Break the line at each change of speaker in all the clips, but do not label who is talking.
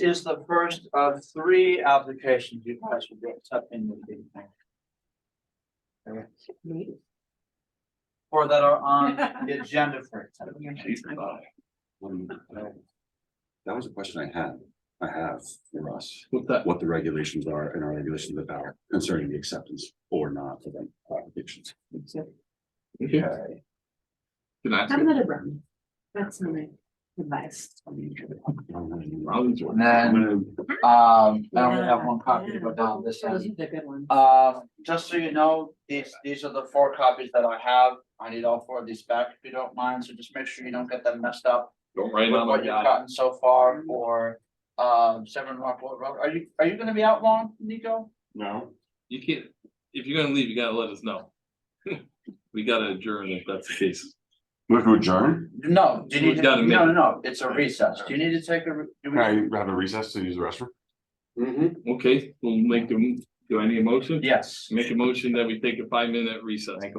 is the first of three applications you guys will be accepting this evening. Or that are on the agenda for tonight.
Um, That was a question I had, I have for us,
With that,
what the regulations are and our regulations about concerning the acceptance or not of them applications.
okay, can I ask?
Have
you-
another brownie. That's my advice.
I'll use one.
And then, um, I only have one copy to go down this
That was
end.
the good one.
Um, just so you know, these, these are the four copies that I have. I need all four of these back if you don't mind, so just make sure you don't get them messed up.
Don't write
with
on
what
what you
you've
got.
gotten so far for um Seven Rockport Road. Are you, are you gonna be out long, Nico?
No.
You can't, if you're gonna leave, you gotta let us know. We gotta adjourn if that's the case.
Move to adjourn?
No, do you need,
We've
to-
got a
no, no,
minute.
no, it's a recess. Do you need to take a? re- do we-
Can I have a recess to use the restroom? Mm-hmm.
Mhm.
Okay, we'll make them, do I need a motion?
Yes,
Make a motion that we take a five minute recess.
and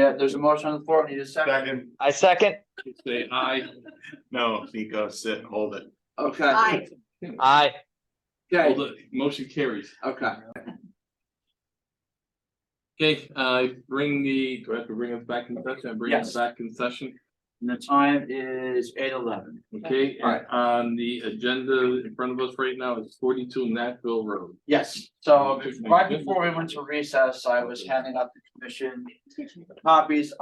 uh, there's a motion on the floor, I need a second.
I second.
Say aye. No, Nico, sit, hold it.
Okay,
Hi.
Aye.
okay,
Hold it, motion carries.
okay.
Okay, uh, bring the, do I have to bring us back in session? Bring us
Yes.
back in session,
And the time is eight eleven.
okay? And
Alright.
on the agenda in front of us right now is forty-two Nashville Road.
Yes, so right before we went to recess, I was handing out the commission copies